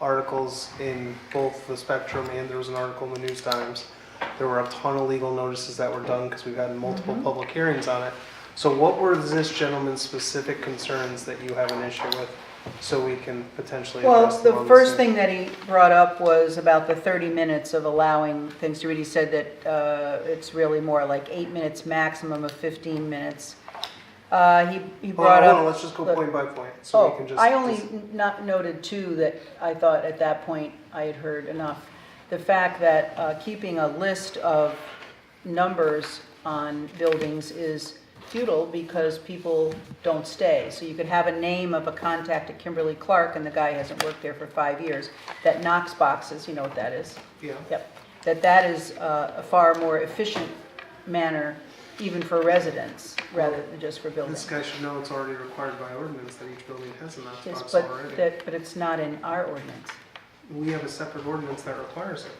articles in both the Spectrum and there was an article in the News Times. There were a ton of legal notices that were done because we've had multiple Mm-hmm. public hearings on it. So what were this gentleman's specific concerns that you have an issue with, so we can potentially Well, address the them on this first meeting? thing that he brought up was about the 30 minutes of allowing things to read. He said that uh, it's really more like eight minutes maximum of 15 minutes. Uh, He he Hold on, brought Oh, hold on, up, let's just go look. point by point, so we oh, can just. I only dis- n- not noted too that I thought at that point I had heard enough. The fact that uh, keeping a list of numbers on buildings is futile because people don't stay. So you could have a name of a contact at Kimberly Clark and the guy hasn't worked there for five years. That Knox boxes, you know what that is? Yeah. Yep, that that is uh, a far more efficient manner even for residents rather than just for This buildings. guy should know it's already required by ordinance that each building has a Yes, Knox box but already. that, but it's not in our ordinance. We have a separate ordinance that requires it.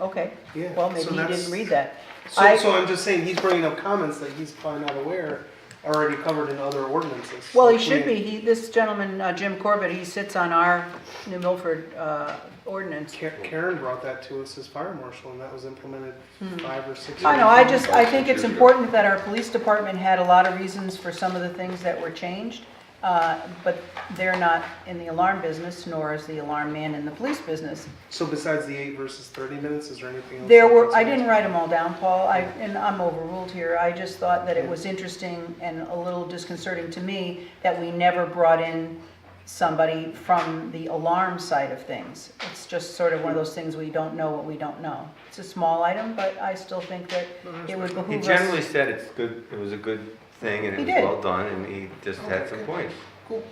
Okay, Yeah, well, so maybe he that's- didn't read that. So, I- so I'm just saying, he's bringing up comments that he's probably not aware, are already covered in other ordinances. Well, he Like should we- be, he, this gentleman, uh, Jim Corbett, he sits on our New Milford, uh, ordinance. Ka- Karen brought that to us as fire marshal, and that was implemented five or six. Hmm. I know, years I ago. just, I think it's important that our police department had a lot of reasons for some of the things that were changed, uh, but they're not in the alarm business, nor is the alarm man in the police business. So besides the eight versus thirty minutes, is there anything else? There that were, I concerns didn't write them all down, Paul, I, and I'm overruled here, I just thought that it was interesting and a little disconcerting to me that we never brought in somebody from the alarm side of things. It's just sort of one of those things we don't know what we don't know. It's a small item, but I still think that it would He behoove generally us. said it's good, it was a good thing and He it was did. well done and he just had some points. Cool.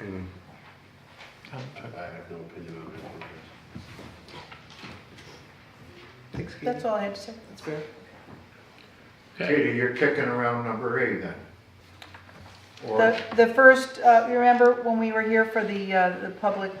And I have no opinion on it. Thanks, Katie. That's all I had to say. That's fair. Katie, you're kicking around number eight then? Or, The, the first, uh, you remember when we were here for the, uh, the public,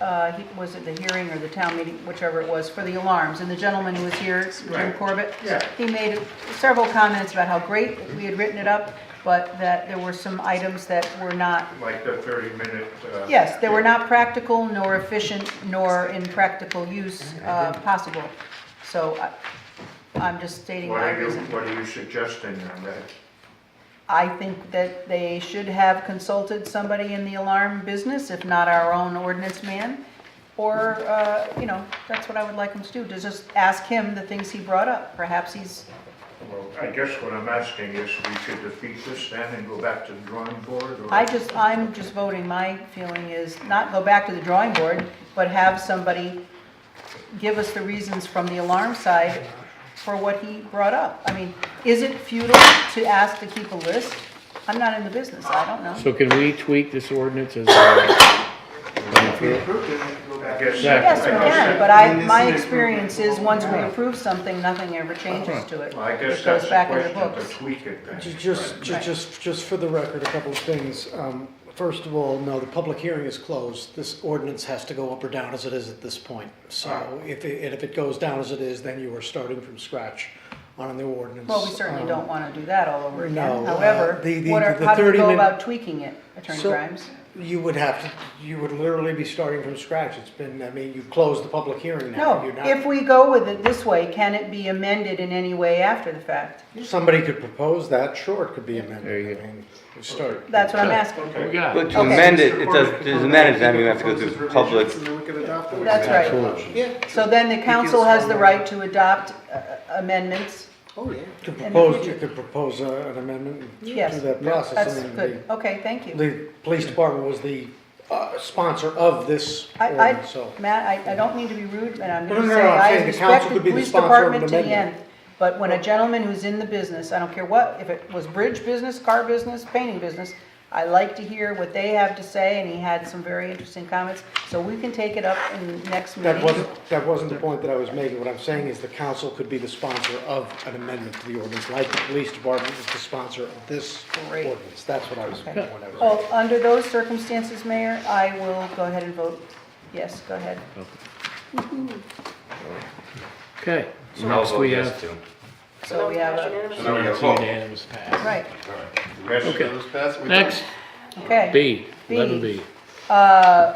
uh, he- was it the hearing or the town meeting, whichever it was, for the alarms, and the gentleman who was here, Jim Right. Corbett? Yeah. He made several comments about how great we had written it up, but that there were some items that were not, like the uh, 30-minute? yes, they were not practical nor efficient nor in practical use uh, possible. So I- I'm just stating What my are you, reason. what are you suggesting on that? I think that they should have consulted somebody in the alarm business, if not our own ordinance man. Or, uh, you know, that's what I would like them to do, to just ask him the things he brought up. Perhaps he's, Well, I guess what I'm asking is we should defeat this then and go back to the drawing board or? I just, I'm just voting, my feeling is not go back to the drawing board, but have somebody give us the reasons from the alarm side for what he brought up. I mean, is it futile to ask to keep a list? I'm not in the business, I don't know. So can we tweak this ordinance as, uh, If we approved it, we could go I back. guess. Yeah. Yes, we I guess can, that- but I mean, I, this my is- experience is, once we approve something, nothing ever changes to it. Well, I It guess goes that's back the in the question, to books. tweak it then. Ju- Just, ju- Right. just, just for the record, a couple of things. Um, First of all, no, the public hearing is closed. This ordinance has to go up or down as it is at this point. So if, it- and if it goes down as it is, then you are starting from scratch on a new ordinance. Well, we certainly Um, don't want to do that all over again. No, uh, However, the- the- what are, the how do we 30 go min- about tweaking it, Attorney So- Grimes? You would have to, you would literally be starting from scratch. It's been, I mean, you've closed the public hearing now. No, You're not- if we go with it this way, can it be amended in any way after the fact? Somebody could propose that, sure, it could be amended. There you go. I mean, you start. That's what I'm asking. we Okay, got? but to Okay. amend it, Mr. it Corbett does, could to come amend back, it, then he we have to go proposes through revisions, public, And then we could adopt it. That's right. Yeah, So then the council has the right to adopt uh, amendments. Oh, yeah. could the propose, you future. could propose uh, an amendment Yes. to that process. I That's mean, the- good. Okay, thank you. The police department was the uh, sponsor of this I, ordinance, I, so. Matt, I, I don't mean to be rude, but I'm No, gonna no, no, say, I'm I saying the council respect the could be the police sponsor of an department to the amendment. end. But when a gentleman who's in the business, I don't care what, if it was bridge business, car business, painting business, I like to hear what they have to say, and he had some very interesting comments, so we can take it up in the next meeting. That wasn't, that wasn't the point that I was making. What I'm saying is the council could be the sponsor of an amendment to the ordinance, like the police department is the sponsor of this Great. ordinance. That's what I was, Okay. what I was. Oh, under those circumstances, Mayor, I will go ahead and vote, yes, go ahead. Okay. So no next vote we yes have, to. So we have a, So now we have it's vote. unanimous pass. right, the rest of Okay. those pass, we done? Next, okay. B, B. eleven B. Uh,